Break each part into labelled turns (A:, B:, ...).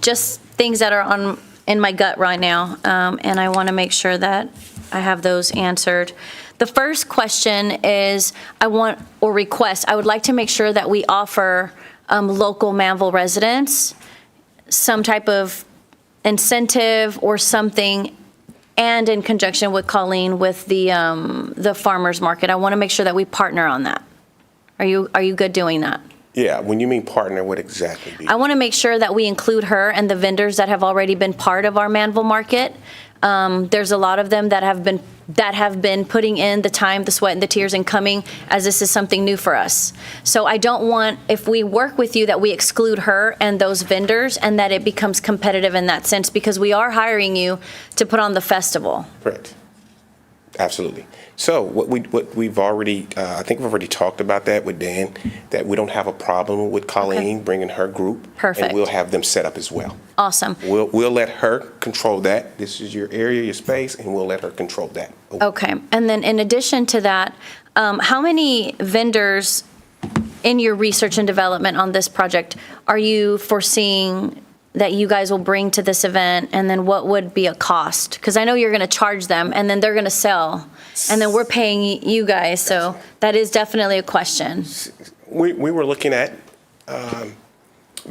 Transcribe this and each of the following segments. A: just things that are on, in my gut right now, um, and I want to make sure that I have those answered. The first question is, I want, or request, I would like to make sure that we offer um, local Manville residents some type of incentive or something, and in conjunction with Colleen, with the, um, the farmer's market. I want to make sure that we partner on that. Are you, are you good doing that?
B: Yeah, when you mean partner, what exactly? do you-
A: I want to make sure that we include her and the vendors that have already been part of our Manville Market. Um, There's a lot of them that have been, that have been putting in the time, the sweat, and the tears and coming, as this is something new for us. So I don't want, if we work with you, that we exclude her and those vendors, and that it becomes competitive in that sense, because we are hiring you to put on the festival.
B: Correct. Absolutely. So what we, what we've already, uh, I think we've already talked about that with Dan, that we don't have a problem with Colleen bringing her group.
A: Perfect.
B: And we'll have them set up as well.
A: Awesome.
B: We'll, we'll let her control that. This is your area, your space, and we'll let her control that.
A: Okay, and then in addition to that, um, how many vendors in your research and development on this project are you foreseeing that you guys will bring to this event? And then what would be a cost? Because I know you're going to charge them, and then they're going to sell, and then we're paying y- you guys, so that is definitely a question.
B: We, we were looking at, um,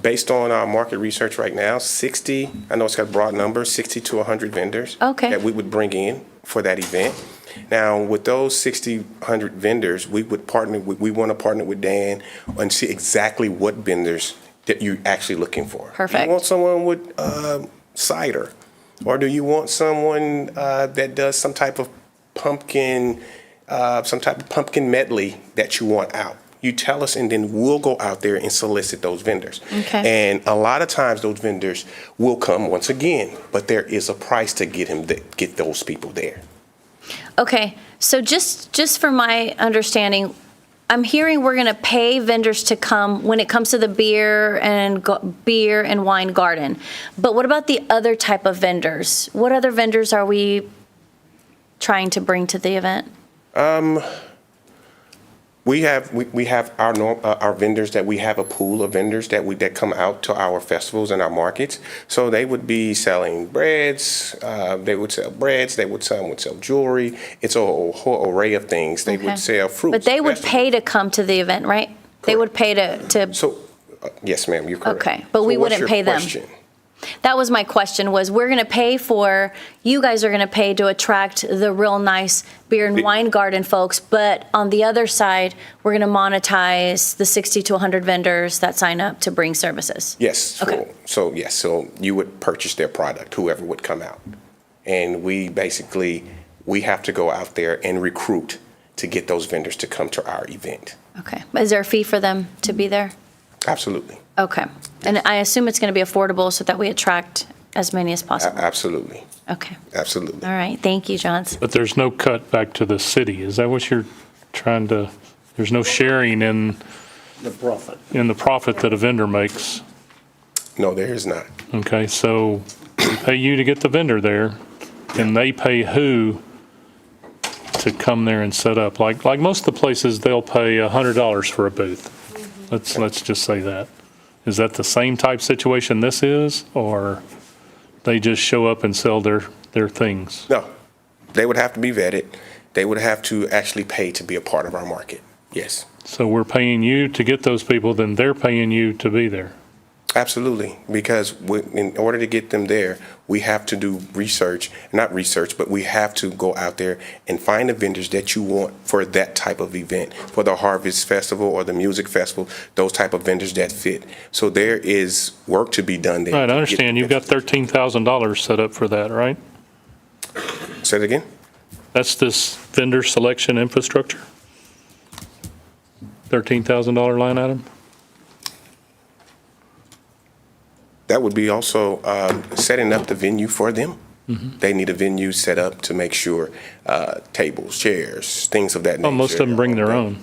B: based on our market research right now, 60, I know it's got broad numbers, 60 to 100 vendors.
A: Okay.
B: That we would bring in for that event. Now, with those 60, 100 vendors, we would partner, with- we want to partner with Dan and see exactly what vendors that you're actually looking for.
A: Perfect.
B: You want someone with uh, cider? Or do you want someone uh, that does some type of pumpkin, uh, some type of pumpkin medley that you want out? You tell us, and then we'll go out there and solicit those vendors.
A: Okay.
B: And a lot of times, those vendors will come once again, but there is a price to get him th- get those people there.
A: Okay, so just, just for my understanding, I'm hearing we're going to pay vendors to come when it comes to the beer and go- beer and wine garden. But what about the other type of vendors? What other vendors are we trying to bring to the event?
B: We have, we, we have our norm, uh, our vendors that we have a pool of vendors that we, that come out to our festivals and our markets. So they would be selling breads, uh, they would sell breads, they would, some would sell jewelry. It's a whole whole array of things. They
A: Okay.
B: would sell fruits.
A: But they would
B: vegetables.
A: pay to come to the event, right? They would pay to, to,
B: So, uh, yes, ma'am, you're correct.
A: Okay, but we
B: So what's
A: wouldn't
B: your
A: pay them.
B: question?
A: that was my question, was we're going to pay for, you guys are going to pay to attract the real nice beer and
B: The-
A: wine garden folks, but on the other side, we're going to monetize the 60 to 100 vendors that sign up to bring services.
B: Yes. so-
A: Okay.
B: So, yes, so you would purchase their product, whoever would come out. And we basically, we have to go out there and recruit to get those vendors to come to our event.
A: Okay. Is there a fee for them to be there?
B: Absolutely.
A: Okay. And I assume it's going to be affordable so that we attract as many as
B: A-
A: possible.
B: Absolutely.
A: Okay.
B: Absolutely.
A: All right. Thank you, Johns.
C: But there's no cut back to the city. Is that what you're trying to, there's no sharing in,
D: the profit.
C: in the profit that a vendor makes?
B: No, there is not.
C: Okay, so we pay you to get the vendor there, and they pay who to come there and set up? Like, like most of the places, they'll pay $100 for a booth. Let's, let's just say that. Is that the same type situation this is, or they just show up and sell their, their things?
B: No. They would have to be vetted. They would have to actually pay to be a part of our market. Yes.
C: So we're paying you to get those people, then they're paying you to be there.
B: Absolutely, because we, in order to get them there, we have to do research, not research, but we have to go out there and find the vendors that you want for that type of event, for the Harvest Festival or the Music Festival, those type of vendors that fit. So there is work to be done there.
C: Right, I understand. You've got $13,000 set up for that, right?
B: Say it again?
C: That's this vendor selection infrastructure? $13,000 line item?
B: That would be also um, setting up the venue for them.
C: Mm-hmm.
B: They need a venue set up to make sure uh, tables, chairs, things of that nature.
C: Well, Oh, most of them bring their own.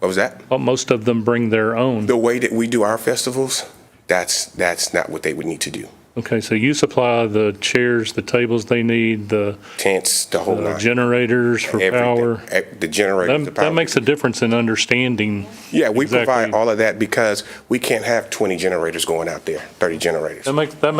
B: What was that?
C: Well, most of them bring their own.
B: the way that we do our festivals, that's, that's not what they would need to do.
C: Okay, so you supply the chairs, the tables they need, the
B: tents, the whole
C: the
B: nine.
C: generators for
B: everything.
C: power.
B: Eh, The generator. the
C: That,
B: power.
C: that makes a difference in understanding.
B: Yeah, we
C: exactly-
B: provide all of that because we can't have 20 generators going out there, 30 generators.
C: That makes, that